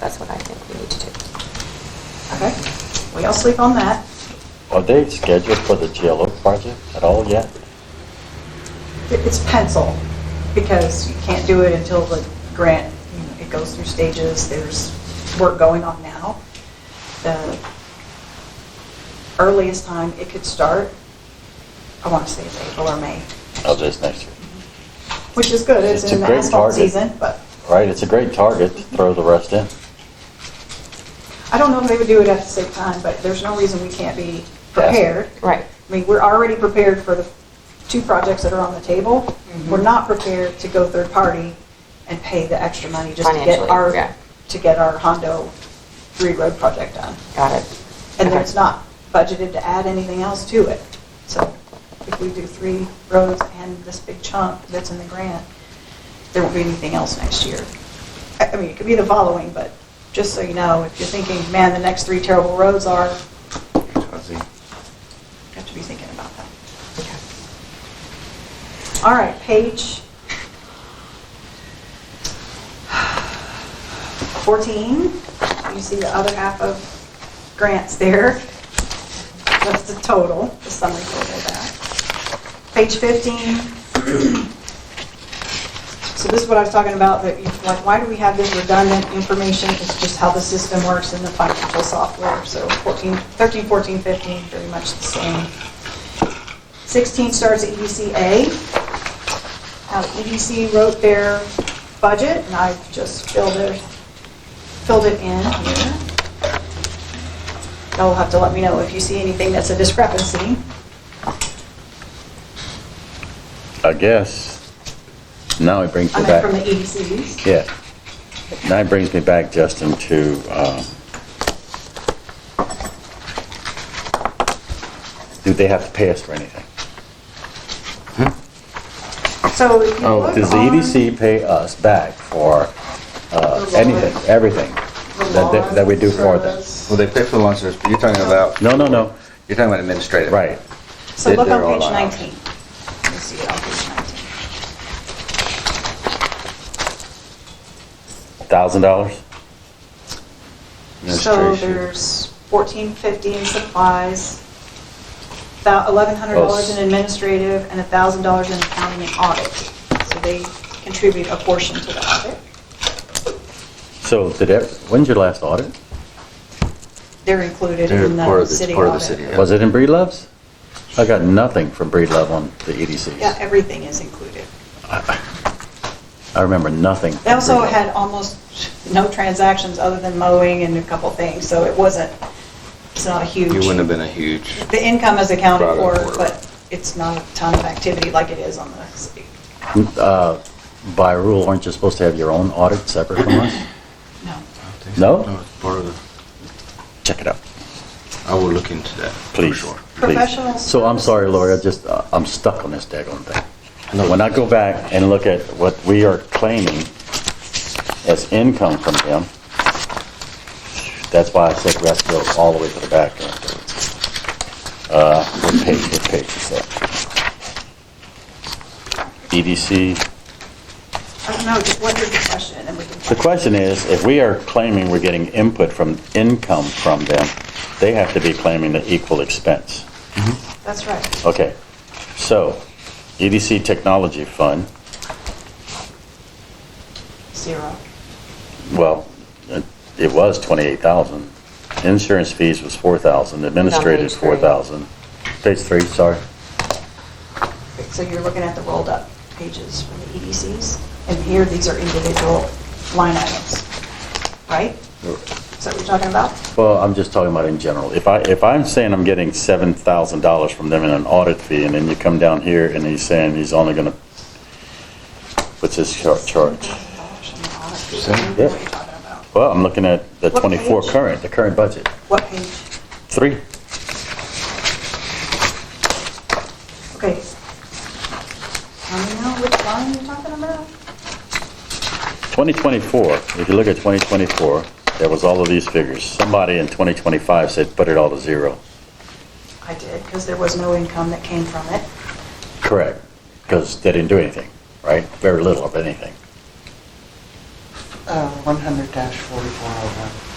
that's what I think we need to do. Okay, we all sleep on that. Are they scheduled for the GLO project at all yet? It- It's pencil, because you can't do it until the grant, you know, it goes through stages, there's work going on now. The earliest time it could start, I want to say it's April or May, Oh, this next year, which is good, it's It's a in the great asphalt target. season, but right? It's a great target to throw the rest in. I don't know if they would do it at the same time, but there's no reason we can't be prepared. Right. I mean, we're already prepared for the two projects that are on the table. Mm-hmm. We're not prepared to go third-party and pay the extra money just to get Financially, our, yeah. to get our Hondo three road project done. Got it. And Okay. then it's not budgeted to add anything else to it. So if we do three roads and this big chunk that's in the grant, there won't be anything else next year. I I mean, it could be the following, but just so you know, if you're thinking, man, the next three terrible roads are, you have to be thinking about that. Okay. All right, page 14, you see the other half of grants there. That's the total, the summary total of that. Page 15. So this is what I was talking about, that, you- like, why do we have this redundant information? It's just how the system works in the financial software. So 14, 13, 14, 15, very much the same. 16 starts at E EDCA. How EDC wrote their budget, and I've just filled it, filled it in here. Y'all will have to let me know if you see anything that's a discrepancy. I guess. Now it brings I me mean, from the E back. EDCs. Yeah. Now it brings me back, Justin, to, um, do they have to pay us for anything? So if you Oh, look does the on EDC pay us back for, uh, The lawn. anything, everything that, that- that we do for them? Well, they pay for the lawn service, but you're talking about, No, no, no, you're talking about administrative. right. So look They're all on page out. 19. You see it on page 19. Thousand dollars? So Administration. there's fourteen fifty in supplies, eleven hundred dollars in administrative, and thousand dollars in accounting and audit. So they contribute a portion to the audit. So did, ev- when's your last audit? They're included They're in part the of the- city part of the audit. city, yeah. Was it in Breedlove's? I got nothing from Breedlove on the E EDCs. Yeah, everything is included. I remember nothing. from They also Breedlove. had almost no transactions other than mowing and a couple things, so it wasn't, it's not a huge. You wouldn't have been a huge, The income is accounted Brought for, it forward. but it's not a ton of activity like it is on the city. Uh, By rule, aren't you supposed to have your own audit separate from us? No. No? it's part of the, Check it out, I will look into that. for please. sure. please. Professional So I'm sorry, Lori, I services. just, uh, I'm stuck on this daggone thing. When I go back and look at what we are claiming as income from them, that's why I said we have to go all the way to the back. Uh, What page, what page is that? E EDC I don't know, just what is the question, and we can. The question is, if we are claiming we're getting input from, income from them, they have to be claiming the equal expense. That's right. Okay, so EDC Technology Fund, Zero. well, it- it was 28,000. Insurance fees was 4,000, administrative Page three. 4,000. Page three, sorry. So you're looking at the rolled up pages from the EDCs, and here, these are individual line items, right? Is that what you're talking about? Well, I'm just talking about in general. If I, if I'm saying I'm getting $7,000 from them in an audit fee, and then you come down here and he's saying he's only gonna, what's his char- charge? $7,000 on the audit fee. I don't know What are you talking about? Well, I'm looking at the What 24 page? current, the current budget. What page? Three. Okay. I don't know which line you're talking about. 2024, if you look at 2024, there was all of these figures. Somebody in 2025 said, put it all to zero. I did, because there was no income that came from it. Correct. Because they didn't do anything, right? Very little of anything. uh, 100-4401.